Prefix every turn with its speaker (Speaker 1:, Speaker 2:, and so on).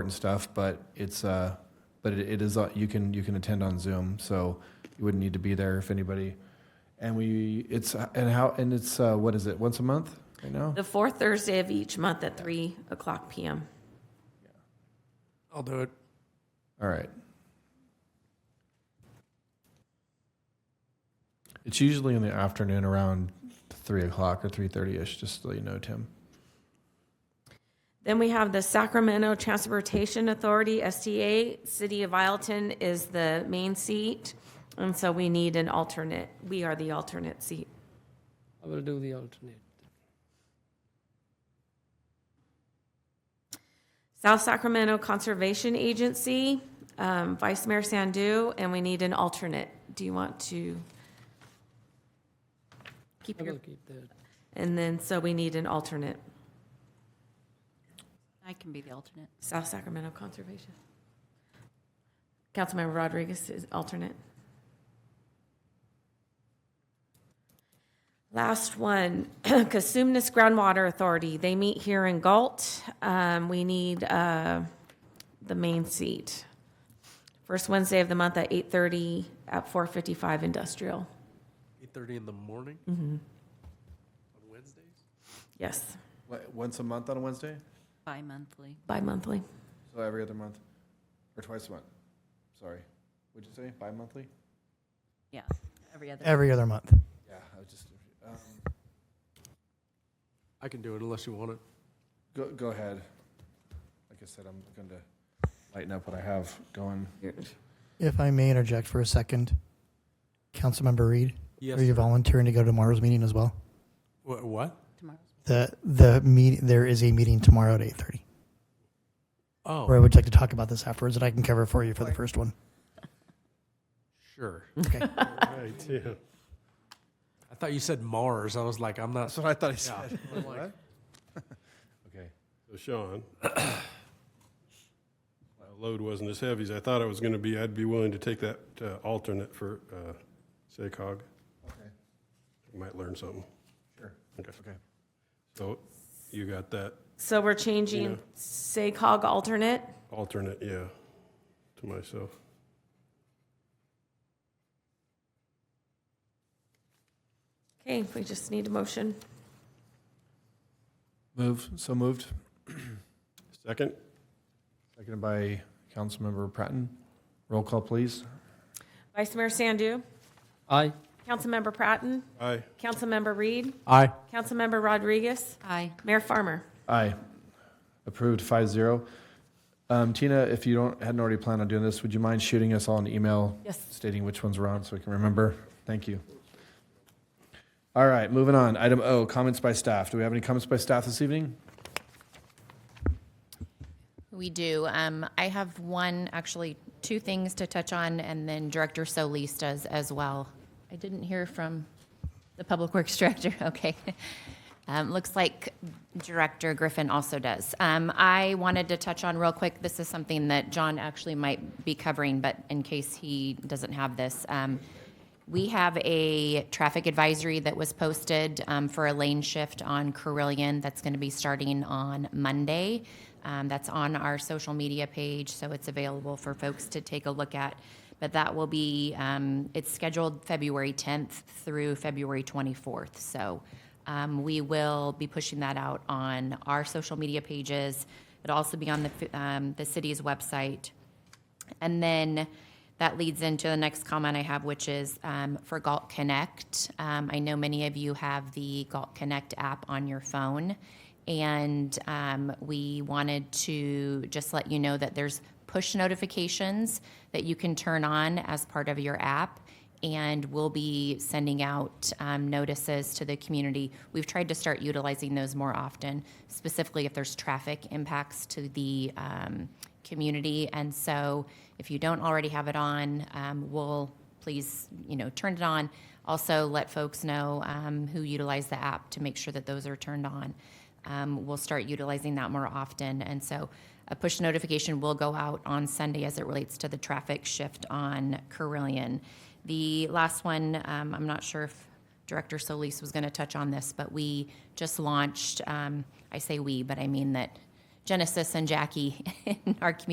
Speaker 1: and stuff, but it's, uh, but it it is, uh, you can, you can attend on Zoom, so you wouldn't need to be there if anybody. And we, it's, and how, and it's, uh, what is it, once a month right now?
Speaker 2: The fourth Thursday of each month at 3 o'clock PM.
Speaker 3: I'll do it.
Speaker 1: All right. It's usually in the afternoon around three o'clock or three thirty ish, just so you know, Tim.
Speaker 2: Then we have the Sacramento Transportation Authority, STA. City of Ileton is the main seat, and so we need an alternate. We are the alternate seat.
Speaker 3: I will do the alternate.
Speaker 2: South Sacramento Conservation Agency, um, Vice Mayor Sandu, and we need an alternate. Do you want to keep
Speaker 3: I
Speaker 2: your,
Speaker 3: will keep that.
Speaker 2: and then, so we need an alternate,
Speaker 4: I can be the alternate.
Speaker 2: South Sacramento Conservation. Councilmember Rodriguez is alternate. Last one, Casumnes Groundwater Authority. They meet here in Galt. Um, we need, uh, the main seat. First Wednesday of the month at eight thirty at four fifty-five industrial.
Speaker 5: Eight thirty in the morning? On Wednesdays?
Speaker 2: Yes,
Speaker 1: Once a month on a Wednesday?
Speaker 4: Bi-monthly.
Speaker 2: bi-monthly.
Speaker 1: So every other month, or twice a month? Sorry, what'd you say? Bi-monthly?
Speaker 4: Yeah, every other.
Speaker 6: Every other month.
Speaker 1: Yeah, I was just. Um,
Speaker 5: I can do it unless you want it.
Speaker 1: go go ahead. Like I said, I'm going to lighten up what I have going.
Speaker 6: If I may interject for a second, Councilmember Reed,
Speaker 5: Yes.
Speaker 6: are you volunteering to go to tomorrow's meeting as well?
Speaker 5: Wha- What?
Speaker 4: Tomorrow's
Speaker 6: The the meet there is a meeting tomorrow at eight thirty. Where I
Speaker 5: Oh,
Speaker 6: would like to talk about this afterwards, and I can cover for you for the first one.
Speaker 5: sure.
Speaker 6: Okay.
Speaker 5: Right, yeah. I thought you said Mars. I was like, I'm not.
Speaker 1: That's what I thought I
Speaker 5: Yeah.
Speaker 1: said.
Speaker 5: I'm like,
Speaker 1: Okay.
Speaker 7: So Sean, my load wasn't as heavy as I thought it was going to be. I'd be willing to take that uh, alternate for uh, SACOG.
Speaker 1: Okay.
Speaker 7: You Might learn something.
Speaker 1: Sure.
Speaker 7: Okay.
Speaker 1: Okay.
Speaker 7: So you got that
Speaker 2: So we're changing SACOG alternate.
Speaker 7: alternate, yeah, to myself.
Speaker 2: Okay, we just need a motion.
Speaker 1: Move. So moved.
Speaker 7: Second?
Speaker 1: Seconded by Councilmember Pratton. Roll call, please.
Speaker 2: Vice Mayor Sandu,
Speaker 3: Aye.
Speaker 2: Councilmember Pratton,
Speaker 7: Aye.
Speaker 2: Councilmember Reed,
Speaker 3: Aye.
Speaker 2: Councilmember Rodriguez,
Speaker 4: Aye.
Speaker 2: Mayor Farmer.
Speaker 1: Aye. Approved, five zero. Um, Tina, if you don't, hadn't already planned on doing this, would you mind shooting us all an email
Speaker 2: Yes.
Speaker 1: stating which ones we're on so we can remember? Thank you. All right, moving on. Item O, comments by staff. Do we have any comments by staff this evening?
Speaker 8: We do. Um, I have one, actually, two things to touch on, and then Director Solis does as well. I didn't hear from the Public Works Director, okay. Um, looks like Director Griffin also does. Um, I wanted to touch on real quick, this is something that John actually might be covering, but in case he doesn't have this. Um, we have a traffic advisory that was posted um, for a lane shift on Carillion that's going to be starting on Monday. Um, that's on our social media page, so it's available for folks to take a look at. But that will be, um, it's scheduled February 10th through February 24th. So um, we will be pushing that out on our social media pages. It'll also be on the, um, the city's website. And then that leads into the next comment I have, which is um, for Galt Connect. Um, I know many of you have the Galt Connect app on your phone. And um, we wanted to just let you know that there's push notifications that you can turn on as part of your app and we'll be sending out um, notices to the community. We've tried to start utilizing those more often, specifically if there's traffic impacts to the um, community. And so, if you don't already have it on, um, we'll please, you know, turn it on. Also, let folks know um, who utilize the app to make sure that those are turned on. Um, we'll start utilizing that more often, and so a push notification will go out on Sunday as it relates to the traffic shift on Carillion. The last one, um, I'm not sure if Director Solis was going to touch on this, but we just launched, um, I say we, but I mean that Genesis and Jackie in our community